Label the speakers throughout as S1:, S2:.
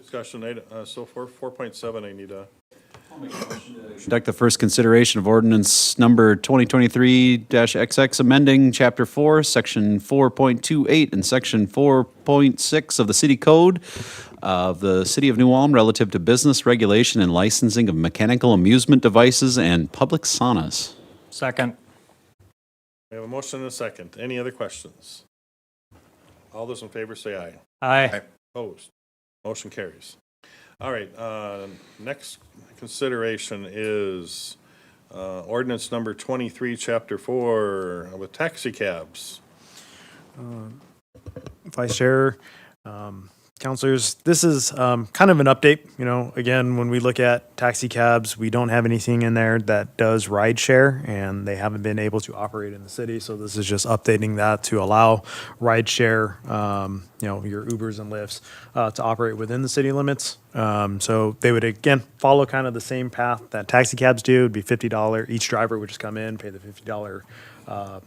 S1: discussion, I- uh, so for 4.7, I need a,
S2: Conduct the first consideration of ordinance number 2023-XX, amending Chapter 4, Section 4.28 and Section 4.6 of the City Code of the City of New Ulm relative to business regulation and licensing of mechanical amusement devices and public saunas.
S3: Second.
S1: we have a motion and a second. Any other questions? All those in favor say aye.
S3: Aye.
S1: Opposed? Motion carries. All right, uh, next consideration is uh, ordinance number 23, Chapter 4, with taxi cabs.
S4: Vice Chair, um, counselors, this is um, kind of an update. You know, again, when we look at taxi cabs, we don't have anything in there that does ride share, and they haven't been able to operate in the city. So this is just updating that to allow ride share, um, you know, your Ubers and Lyfts uh, to operate within the city limits. Um, so they would again follow kind of the same path that taxi cabs do. It'd be fifty dollar each driver would just come in, pay the fifty dollar. Uh,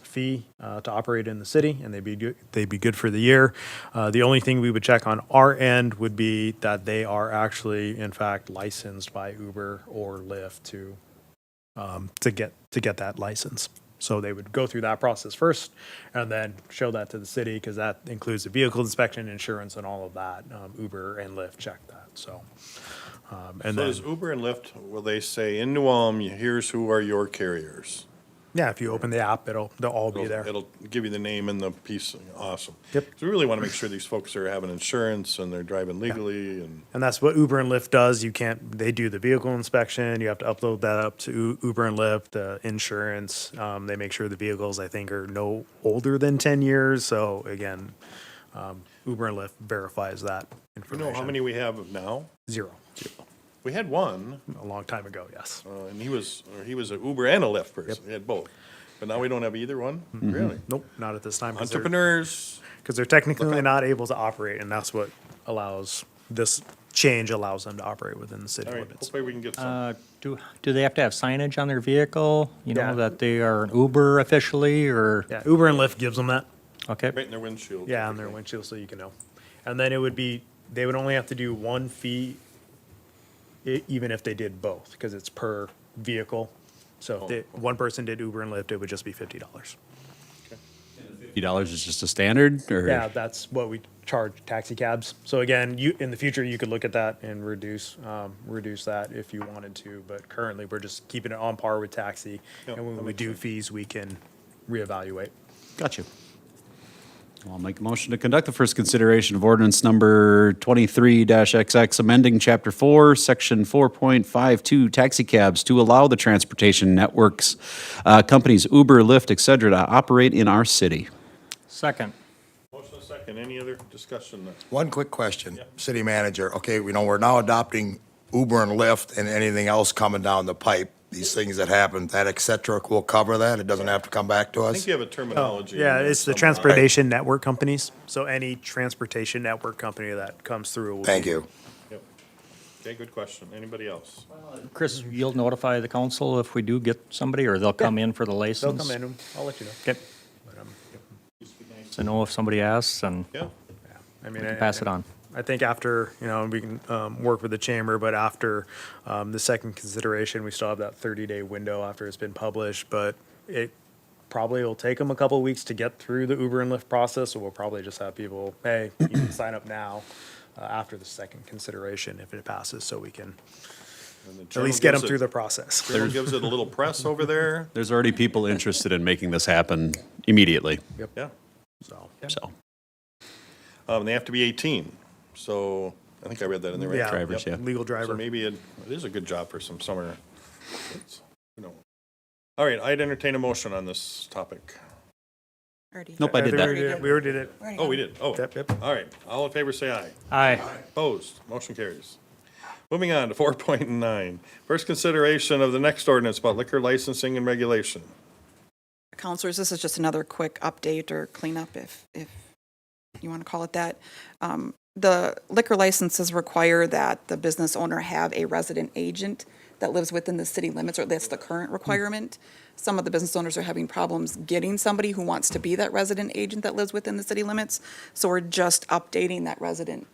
S4: fee uh, to operate in the city, and they'd be good, they'd be good for the year. Uh, the only thing we would check on our end would be that they are actually, in fact, licensed by Uber or Lyft to um, to get to get that license. So they would go through that process first, and then show that to the city because that includes the vehicle inspection, insurance, and all of that. Um, Uber and Lyft check that. So, um, and
S1: So
S4: then
S1: does Uber and Lyft, will they say, in New Ulm, here's who are your carriers?
S4: yeah, if you open the app, it'll they'll all be
S1: It'll-
S4: there.
S1: It'll give you the name and the piece, awesome.
S4: Yep.
S1: 'Cause we really want to make sure these folks are having insurance and they're driving legally and,
S4: And that's what Uber and Lyft does. You can't, they do the vehicle inspection. You have to upload that up to U- Uber and Lyft, the insurance. Um, they make sure the vehicles, I think, are no older than 10 years. So again, um, Uber and Lyft verifies that
S1: you
S4: information.
S1: know how many we have now?
S4: Zero.
S1: We had one,
S4: A long time ago, yes.
S1: uh, and he was, or he was a Uber and a Lyft person, he had both. But now we don't have either one, really?
S4: Mm-hmm. Nope, not at this time. Because they're,
S1: Entrepreneurs,
S4: 'cause they're technically not able to operate, and that's what allows this change allows them to operate within the city
S1: all right,
S4: limits.
S1: hopefully we can get some.
S3: Uh, Do, do they have to have signage on their vehicle? You
S4: Yeah.
S3: know, that they are an Uber officially or,
S4: Yeah, Uber and Lyft gives them that.
S3: okay?
S1: Right in their windshield.
S4: Yeah, on their windshield, so you can know. And then it would be, they would only have to do one fee, e- even if they did both, because it's per vehicle. So if they-
S1: Oh.
S4: one person did Uber and Lyft, it would just be fifty dollars.
S2: $50 is just a standard, or?
S4: Yeah, that's what we charge taxi cabs. So again, you, in the future, you could look at that and reduce, um, reduce that if you wanted to. But currently, we're just keeping it on par with taxi.
S1: Yep,
S4: And
S1: that
S4: when we
S1: makes
S4: do fees, we can reevaluate.
S2: Got you. I'll make a motion to conduct the first consideration of ordinance number 23-XX, amending Chapter 4, Section 4.52, taxi cabs to allow the transportation networks, uh, companies Uber, Lyft, et cetera, to operate in our city.
S3: Second.
S1: Motion and second, any other discussion?
S5: One quick question, city manager. Okay, we know we're now adopting Uber and Lyft and anything else coming down the pipe. These things that happen, that et cetera, will cover that? It doesn't have to come back to
S1: I
S5: us?
S1: think you have a terminology. in
S4: Oh, Yeah,
S1: there
S4: it's the
S1: somehow.
S4: transportation network companies. So any transportation network company that comes through. will
S5: Thank
S4: be-
S5: you.
S1: Yep. Okay, good question, anybody else?
S3: Chris, you'll notify the council if we do get somebody or they'll come in for the
S4: They'll
S3: license?
S4: come in. I'll let you know.
S3: Okay. To know if somebody asks and
S1: Yeah,
S4: I mean, I-
S3: pass it on.
S4: I think after, you know, we can um, work with the chamber, but after um, the second consideration, we still have that 30-day window after it's been published, but it probably will take them a couple weeks to get through the Uber and Lyft process, so we'll probably just have people, hey, you can sign up now uh, after the second consideration if it passes, so we can
S1: and the
S4: at
S1: Journal
S4: least get
S1: gives
S4: them
S1: it-
S4: through the process.
S1: Journal gives it a little press over there,
S2: There's already people interested in making this happen immediately,
S1: yeah.
S4: So,
S2: so,
S1: Um, they have to be 18. So I think I read that in the right.
S4: yeah,
S2: drivers,
S4: yep,
S2: yeah.
S4: legal driver.
S1: So maybe it, it is a good job for some summer. kids. You know. All right, I'd entertain a motion on this topic.
S6: Already.
S2: Nope, I did
S4: We
S2: that.
S4: already We already did it.
S6: Already
S1: Oh, we
S6: done.
S1: did. Oh,
S4: Yep, yep.
S1: all right. All in favor, say aye.
S3: Aye.
S1: Opposed, motion carries. Moving on to 4.9, first consideration of the next ordinance about liquor licensing and regulation.
S6: Counselors, this is just another quick update or cleanup, if, if you want to call it that. Um, The liquor licenses require that the business owner have a resident agent that lives within the city limits, or that's the
S2: Hmm.
S6: current requirement. Some of the business owners are having problems getting somebody who wants to be that resident agent that lives within the city limits. So we're just updating that resident